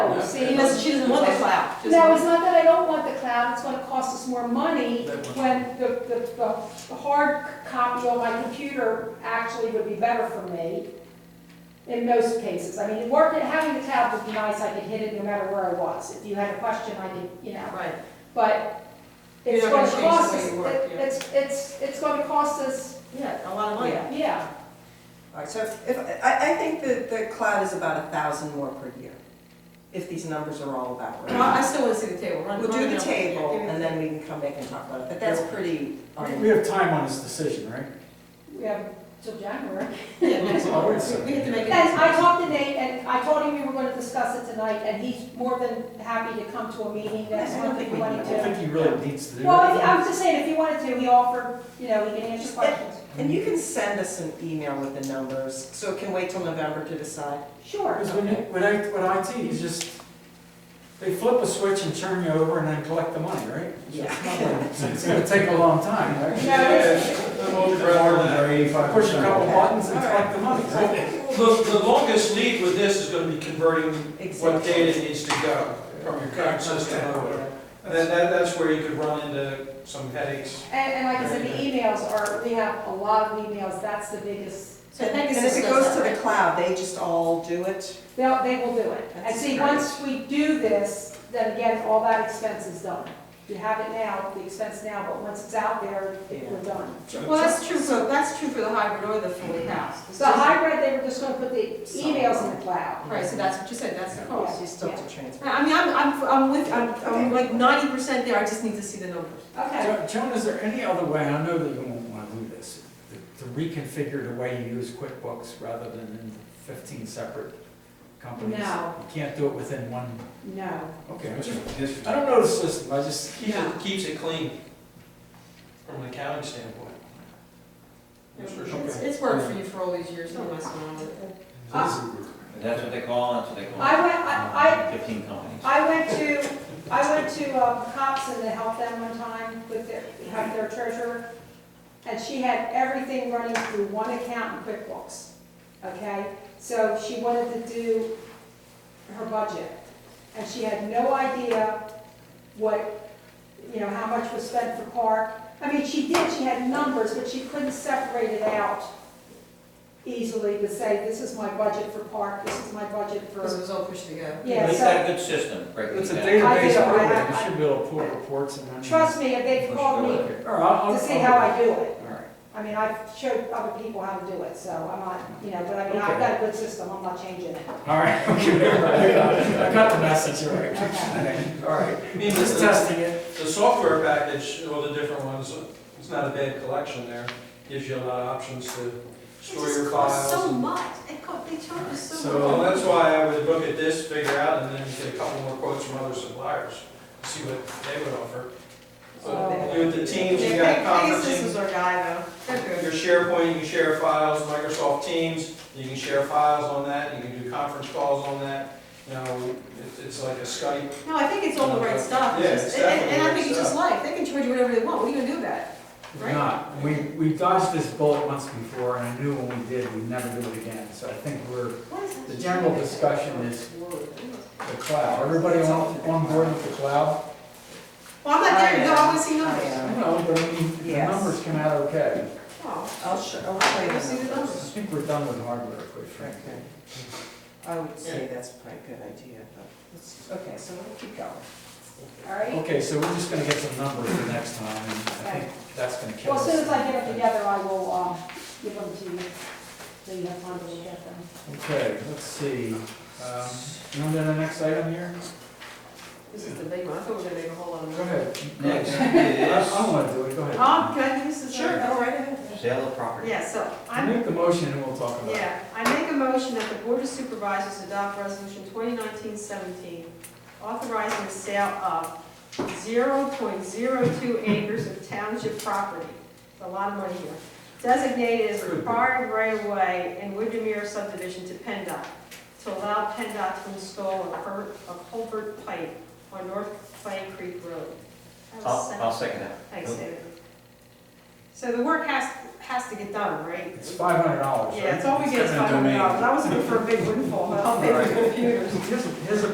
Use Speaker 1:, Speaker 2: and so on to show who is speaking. Speaker 1: cloud.
Speaker 2: Just-
Speaker 1: Now, it's not that I don't want the cloud, it's gonna cost us more money
Speaker 3: That much.
Speaker 1: when the, the, the the hard copy on my computer actually would be better for me in most cases. I mean, working, having the cloud would be nice, I could hit it no matter where I was. If you had a question, I could, you know,
Speaker 2: Right.
Speaker 1: but
Speaker 2: You're
Speaker 1: it's
Speaker 2: not gonna
Speaker 1: gonna
Speaker 2: change the
Speaker 1: cost
Speaker 2: way
Speaker 1: us,
Speaker 2: you work,
Speaker 1: it-
Speaker 2: yeah.
Speaker 1: it's, it's, it's gonna cost us,
Speaker 2: Yeah, a lot of money.
Speaker 1: yeah, yeah.
Speaker 4: All right, so if, if- I, I think that the cloud is about a thousand more per year, if these numbers are all about
Speaker 2: Well, I
Speaker 4: right.
Speaker 2: still wanna see the table, run.
Speaker 4: We'll do
Speaker 2: run
Speaker 4: the
Speaker 2: down.
Speaker 4: table,
Speaker 2: Yeah, give me the
Speaker 4: and then we can come back and talk about it, but that's pretty,
Speaker 3: We-
Speaker 4: um,
Speaker 3: We have time on this decision, right?
Speaker 1: We have till January.
Speaker 2: Yeah,
Speaker 3: It's always
Speaker 2: we- We have to make it.
Speaker 1: And I talked to Nate, and I told him we were gonna discuss it tonight, and he's more than happy to come to a meeting next
Speaker 4: I don't
Speaker 1: month if
Speaker 4: think
Speaker 1: he
Speaker 4: we
Speaker 1: wanted
Speaker 4: need
Speaker 3: I don't
Speaker 1: to.
Speaker 3: think he really needs to do it.
Speaker 1: Well, I I was just saying, if he wanted to, he offered, you know, he can answer questions.
Speaker 4: and you can send us an email with the numbers, so it can wait till November to decide.
Speaker 1: Sure.
Speaker 3: Because when, you- when I, when IT, you just, they flip a switch and turn you over and then collect the money, right? So it's not like- so It's gonna take a long time, right?
Speaker 1: No, it's-
Speaker 5: I'm over it on that.
Speaker 3: Push a couple buttons and collect the money, right?
Speaker 5: The, the longest lead with this is gonna be converting what
Speaker 4: Exactly.
Speaker 5: data needs to go from your current system over. And then that, that's where you could run into some headaches.
Speaker 1: And, and like I said, the emails are, we have a lot of emails, that's the biggest,
Speaker 2: So Pegasus
Speaker 4: And if it
Speaker 2: does
Speaker 4: goes to
Speaker 2: that,
Speaker 4: the cloud, they just all do it?
Speaker 1: they'll, they will do it. And see, once we do this, then again, all that expense is done. You have it now, the expense now, but once it's out there, we're done.
Speaker 2: right? Well, that's true, so that's true for the hybrid or the fully housed. It's
Speaker 1: The
Speaker 2: just-
Speaker 1: hybrid, they were just gonna put the emails in the cloud.
Speaker 2: Right, so that's what you said, that's the cost.
Speaker 4: You still have to transfer.
Speaker 2: I mean, I'm, I'm, I'm with, I'm, I'm like ninety percent there, I just need to see the numbers.
Speaker 1: Okay.
Speaker 3: Jo- Joan, is there any other way, I know that you won't wanna do this, to- to reconfigure the way you use QuickBooks rather than in fifteen separate companies?
Speaker 1: No.
Speaker 3: You can't do it within one,
Speaker 1: No.
Speaker 3: okay, I just- I don't know the system, I just,
Speaker 5: Keeps it, keeps it clean from an accounting standpoint. Yes, sir.
Speaker 2: It's, it's worked for you for all these years, don't mess around with it.
Speaker 1: Ah.
Speaker 6: That's what they call, that's what they call.
Speaker 1: I went, I,
Speaker 6: Fifteen companies.
Speaker 1: I, I went to, I went to um, Coxon to help them one time with their, help their treasurer. And she had everything running through one account in QuickBooks, okay? So she wanted to do her budget. And she had no idea what, you know, how much was spent for park. I mean, she did, she had numbers, but she couldn't separate it out easily to say, this is my budget for park, this is my budget for.
Speaker 2: Because it was all pushed together.
Speaker 1: Yeah,
Speaker 6: They've
Speaker 1: so-
Speaker 6: got a good system, breaking
Speaker 3: it's
Speaker 6: it
Speaker 3: a
Speaker 6: down.
Speaker 3: database
Speaker 1: I-
Speaker 3: program, you should be able to pull reports and then.
Speaker 1: Trust me, if they've called me
Speaker 3: All right, I'll-
Speaker 1: to see
Speaker 3: I'll-
Speaker 1: how I do
Speaker 3: All
Speaker 1: it,
Speaker 3: right,
Speaker 1: I mean, I've showed other people how to do it, so I'm not, you know, but I mean,
Speaker 3: Okay.
Speaker 1: I've got a good system, I'm not changing it.
Speaker 3: all right, okay, all right, I got it. I got the message, all right.
Speaker 1: Okay.
Speaker 3: All right,
Speaker 5: I mean,
Speaker 3: just
Speaker 5: the,
Speaker 3: testing it.
Speaker 5: the software package, all the different ones, it's not a bad collection there. Gives you a lot of options to store your files.
Speaker 2: So
Speaker 5: and-
Speaker 2: much, it cost, they charge us so much.
Speaker 3: So-
Speaker 5: Well, that's why I would look at this, figure out, and then get a couple more quotes from other suppliers, see what they would offer. But you with the teams, you got conferencing,
Speaker 2: was our guy though.
Speaker 5: your SharePoint, you can share files, Microsoft Teams, you can share files on that, you can do conference calls on that. You know, it- it's like a Skype.
Speaker 2: No, I think it's all the right stuff.
Speaker 5: Yeah,
Speaker 2: It's
Speaker 5: it's
Speaker 2: just- and- And I
Speaker 5: definitely
Speaker 2: think it's
Speaker 5: the right
Speaker 2: just life, they can charge you whatever they want, what are you gonna do about it?
Speaker 3: We're not, we, we dodged this bullet once before, and I knew when we did, we'd never do it again, so I think we're
Speaker 2: What is that?
Speaker 3: The general discussion is- the cloud. Everybody on, on board with the cloud?
Speaker 2: Well, I'm not there, no, I wanna see
Speaker 4: I uh,
Speaker 2: numbers.
Speaker 4: am.
Speaker 3: I know, but I mean, the
Speaker 4: Yes.
Speaker 3: numbers come out okay.
Speaker 2: Oh,
Speaker 4: I'll show, I'll show you
Speaker 2: I'll see the
Speaker 4: the
Speaker 3: I
Speaker 2: numbers.
Speaker 4: numbers.
Speaker 3: think we're done with hardware, quite frankly.
Speaker 4: Okay. I would say that's probably a good idea, but, it's- okay, so we'll keep going.
Speaker 1: All right?
Speaker 3: Okay, so we're just gonna get some numbers for next time, and I think that's gonna kill
Speaker 1: Well,
Speaker 3: us.
Speaker 1: as soon as I get them together, I will, um, give them to you, so you have time to look at them.
Speaker 3: Okay, let's see, um, you want to do the next item here?
Speaker 2: This is the big one, I thought we were gonna make a whole lot of
Speaker 3: Go
Speaker 2: money.
Speaker 3: ahead.
Speaker 6: Next
Speaker 3: I, I
Speaker 6: is
Speaker 3: wanna do it, go ahead.
Speaker 2: Um, can I do this as a?
Speaker 4: go right ahead.
Speaker 6: sale of property.
Speaker 2: Yeah, so I'm
Speaker 3: Make the motion and we'll talk about it.
Speaker 2: Yeah, I make a motion that the Board of Supervisors adopt Resolution 2019-17, authorizing the sale of 0.02 acres of township property, It's a lot of money here, designated as required right-of-way in Windermere subdivision to PennDOT, to allow PennDOT to install a cul- a culvert pipe on North Clay Creek Road. That was
Speaker 6: I'll,
Speaker 2: second.
Speaker 6: I'll second that.
Speaker 2: Thanks, David. So the work has, has to get done, right?
Speaker 3: It's five hundred dollars,
Speaker 2: Yeah, it's all we get is five hundred dollars, I was looking for a big windfall, but I'll pay for computers.
Speaker 3: Here's, a- here's a